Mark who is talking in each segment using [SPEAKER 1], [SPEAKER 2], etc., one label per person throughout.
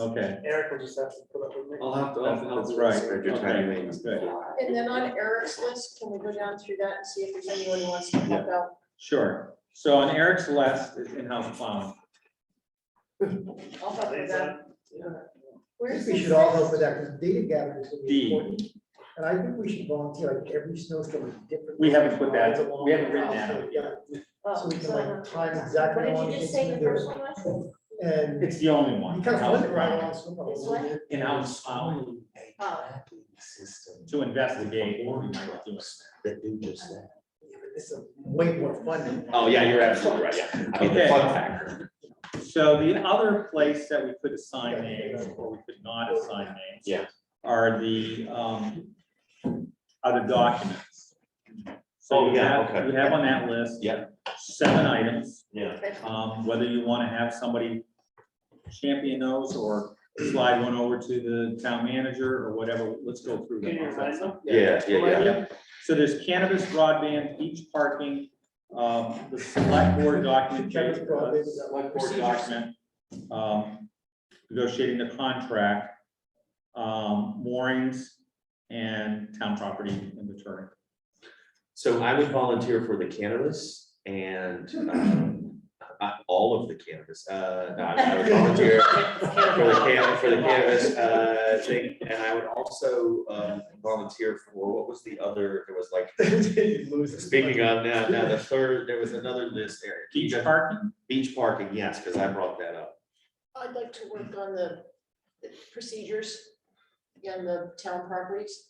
[SPEAKER 1] Okay,
[SPEAKER 2] Eric will just have to put up with me.
[SPEAKER 3] I'll have to. I'll have to-
[SPEAKER 1] That's right.
[SPEAKER 3] I'll
[SPEAKER 1] Okay,
[SPEAKER 3] try to-
[SPEAKER 1] that's good.
[SPEAKER 4] And then on Eric's list, can we go down through that and see if there's anyone who wants to help out?
[SPEAKER 1] sure. So on Eric's list is in-house plowing.
[SPEAKER 4] I'll help with that.
[SPEAKER 5] I
[SPEAKER 4] Where's
[SPEAKER 5] think
[SPEAKER 4] the?
[SPEAKER 5] we should all help with that, because data gathering is gonna
[SPEAKER 1] D.
[SPEAKER 5] be important. And I think we should volunteer, like, every snowstorm is different.
[SPEAKER 1] We haven't put that-
[SPEAKER 5] Along
[SPEAKER 1] we haven't
[SPEAKER 5] the
[SPEAKER 1] written
[SPEAKER 5] route,
[SPEAKER 1] that out yet.
[SPEAKER 4] Oh,
[SPEAKER 5] So we can
[SPEAKER 4] so-
[SPEAKER 5] like time exactly. how
[SPEAKER 4] What did
[SPEAKER 5] long
[SPEAKER 4] you just
[SPEAKER 5] it's
[SPEAKER 4] say the
[SPEAKER 5] gonna
[SPEAKER 4] first one was?
[SPEAKER 5] do, And
[SPEAKER 1] It's the only one.
[SPEAKER 5] you kind of flip it right
[SPEAKER 1] in-house
[SPEAKER 5] along snowball.
[SPEAKER 4] It's what?
[SPEAKER 1] In-house plowing
[SPEAKER 4] Oh.
[SPEAKER 6] System
[SPEAKER 1] to investigate. what we might do.
[SPEAKER 6] that do just that.
[SPEAKER 5] Yeah, but This is way more fun than. that.
[SPEAKER 6] Oh, yeah, you're absolutely right, yeah. I mean, the
[SPEAKER 1] Okay.
[SPEAKER 6] fun factor,
[SPEAKER 1] So the other place that we could assign names or we could not assign names.
[SPEAKER 6] Yeah.
[SPEAKER 1] Are the, um, other documents.
[SPEAKER 6] Oh,
[SPEAKER 1] So you
[SPEAKER 6] yeah,
[SPEAKER 1] have,
[SPEAKER 6] okay.
[SPEAKER 1] you have on that list.
[SPEAKER 6] Yeah.
[SPEAKER 1] Seven items.
[SPEAKER 6] yeah.
[SPEAKER 1] um, whether you want to have somebody champion those or slide one over to the town manager or whatever, let's go through
[SPEAKER 2] Can you remind
[SPEAKER 1] them.
[SPEAKER 2] them?
[SPEAKER 6] Yeah, yeah, yeah.
[SPEAKER 1] Yeah. So there's cannabis broadband, beach parking, um, the select board document,
[SPEAKER 5] Cannabis broadband, is that
[SPEAKER 1] select board
[SPEAKER 5] procedures?
[SPEAKER 1] document, um, negotiating the contract, um, moorings and town property inventory.
[SPEAKER 6] So I would volunteer for the cannabis and um, uh, all of the cannabis. Uh, no, I would volunteer for the can, for the cannabis uh, thing. And I would also um, volunteer for, what was the other, there was like,
[SPEAKER 5] You lose it.
[SPEAKER 6] speaking of now, now the third, there was another list, Eric.
[SPEAKER 1] Beach parking,
[SPEAKER 6] Beach parking, yes, because I brought that up.
[SPEAKER 4] I'd like to work on the the procedures and the town properties.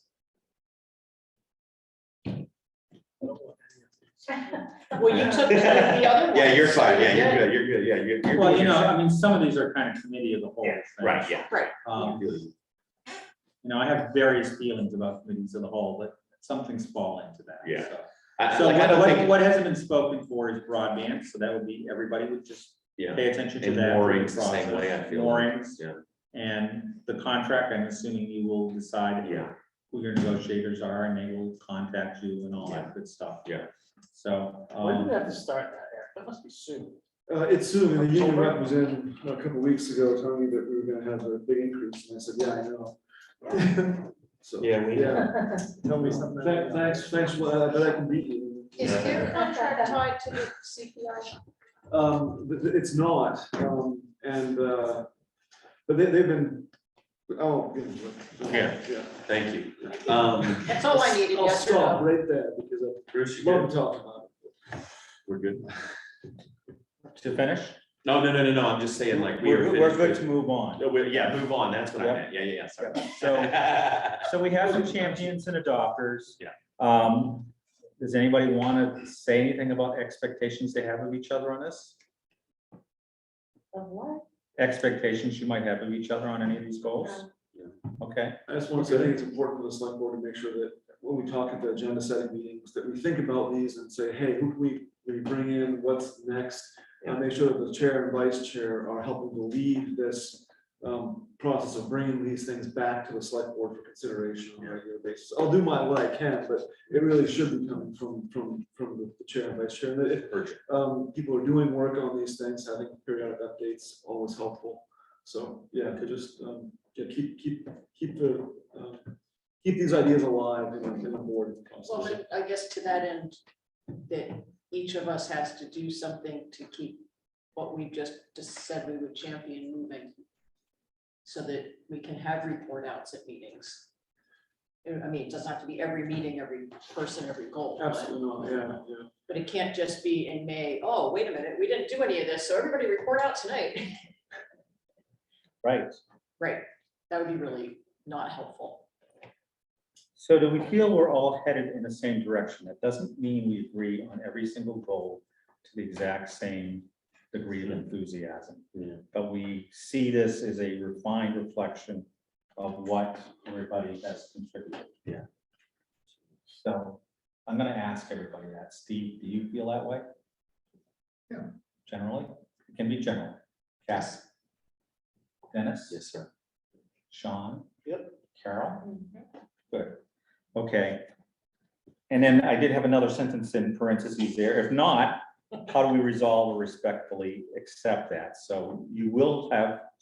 [SPEAKER 4] Well, you took the other one.
[SPEAKER 6] Yeah, you're fine, yeah, you're good, you're good, yeah, you're. you're
[SPEAKER 1] well, you
[SPEAKER 6] doing
[SPEAKER 1] know,
[SPEAKER 6] your
[SPEAKER 1] I
[SPEAKER 6] thing.
[SPEAKER 1] mean, some of these are kind of committee of the whole.
[SPEAKER 6] Yeah,
[SPEAKER 1] thing.
[SPEAKER 6] Right, yeah.
[SPEAKER 1] Um, you know, I have various feelings about committees of the whole, but some things fall into that.
[SPEAKER 6] Yeah.
[SPEAKER 1] so.
[SPEAKER 6] I- I-
[SPEAKER 1] So
[SPEAKER 6] like, I
[SPEAKER 1] what,
[SPEAKER 6] don't
[SPEAKER 1] what,
[SPEAKER 6] think,
[SPEAKER 1] what hasn't been spoken for is broadband, so that would be, everybody would just
[SPEAKER 6] yeah.
[SPEAKER 1] pay attention to
[SPEAKER 6] And
[SPEAKER 1] that.
[SPEAKER 6] moorings the same way, I feel.
[SPEAKER 1] Moorings.
[SPEAKER 6] Yeah.
[SPEAKER 1] And the contract, I'm assuming you will decide
[SPEAKER 6] Yeah,
[SPEAKER 1] who your negotiators are, and they will contact you and all
[SPEAKER 6] Yeah.
[SPEAKER 1] that good stuff.
[SPEAKER 6] Yeah.
[SPEAKER 1] So,
[SPEAKER 2] When do
[SPEAKER 1] um,
[SPEAKER 2] we have to start that, Eric? That must be soon.
[SPEAKER 7] Uh, it's soon, and the union rep was in a couple weeks ago telling me that we were gonna have a big increase, and I said, yeah, I know. So,
[SPEAKER 6] yeah, we know.
[SPEAKER 7] yeah,
[SPEAKER 5] Tell me something.
[SPEAKER 7] Tha- thanks, thanks, well, I bet I can beat you.
[SPEAKER 4] Is their contract tied to the CPI?
[SPEAKER 7] Um, th- th- it's not, um, and, uh, but they, they've been, oh. you know, but-
[SPEAKER 6] Yeah.
[SPEAKER 7] Yeah.
[SPEAKER 6] thank you. Um,
[SPEAKER 4] That's all I needed
[SPEAKER 7] I'll
[SPEAKER 4] yesterday.
[SPEAKER 7] stop right there, because
[SPEAKER 6] Bruce, you
[SPEAKER 7] I love
[SPEAKER 6] good?
[SPEAKER 7] to talk about it.
[SPEAKER 6] We're good.
[SPEAKER 1] to finish,
[SPEAKER 6] No, no, no, no, no, I'm just saying like we
[SPEAKER 1] we're,
[SPEAKER 6] are.
[SPEAKER 1] we're good
[SPEAKER 6] finished
[SPEAKER 1] to
[SPEAKER 6] with-
[SPEAKER 1] move on.
[SPEAKER 6] No, we- Yeah, move on, that's what I
[SPEAKER 1] Yep.
[SPEAKER 6] meant, yeah, yeah, yeah, sorry.
[SPEAKER 1] So, so we have some champions and adopters.
[SPEAKER 6] Yeah.
[SPEAKER 1] Um, does anybody want to say anything about expectations they have of each other on this?
[SPEAKER 4] Of what?
[SPEAKER 1] expectations you might have of each other on any of these goals? Okay,
[SPEAKER 7] I just want to say, I think it's important for the select board to make sure that when we talk at the agenda setting meetings, that we think about these and say, hey, who can we, we bring in, what's next? And make sure that the chair and vice chair are helping to lead this um, process of bringing these things back to the select board for consideration on a regular basis. I'll do my, what I can, but it really should be coming from, from, from the chair and vice chair. And if
[SPEAKER 6] Urgent.
[SPEAKER 7] um, people are doing work on these things, having periodic updates always helpful. So, yeah, could just, um, yeah, keep, keep, keep the, um, keep these ideas alive in, in the board
[SPEAKER 4] Well,
[SPEAKER 7] process.
[SPEAKER 4] then, I guess to that end, that each of us has to do something to keep what we just just said we would champion moving. So that we can have report outs at meetings. Uh, I mean, it doesn't have to be every meeting, every person, every goal. but-
[SPEAKER 7] Absolutely not, yeah, yeah.
[SPEAKER 4] But it can't just be in May, oh, wait a minute, we didn't do any of this, so everybody report out tonight.
[SPEAKER 1] right.
[SPEAKER 4] Right, that would be really not helpful.
[SPEAKER 1] So do we feel we're all headed in the same direction? That doesn't mean we agree on every single goal to the exact same degree of enthusiasm.
[SPEAKER 6] Yeah.
[SPEAKER 1] But we see this as a refined reflection of what everybody has contributed.
[SPEAKER 6] Yeah.
[SPEAKER 1] So I'm gonna ask everybody that. Steve, do you feel that way?
[SPEAKER 5] Yeah.
[SPEAKER 1] Generally, it can be general. Cass? Dennis?
[SPEAKER 6] Yes, sir.
[SPEAKER 1] Sean?
[SPEAKER 2] Yep.
[SPEAKER 1] Carol? Good, okay. And then I did have another sentence in parentheses there. If not, how do we resolve or respectfully accept that? So you will have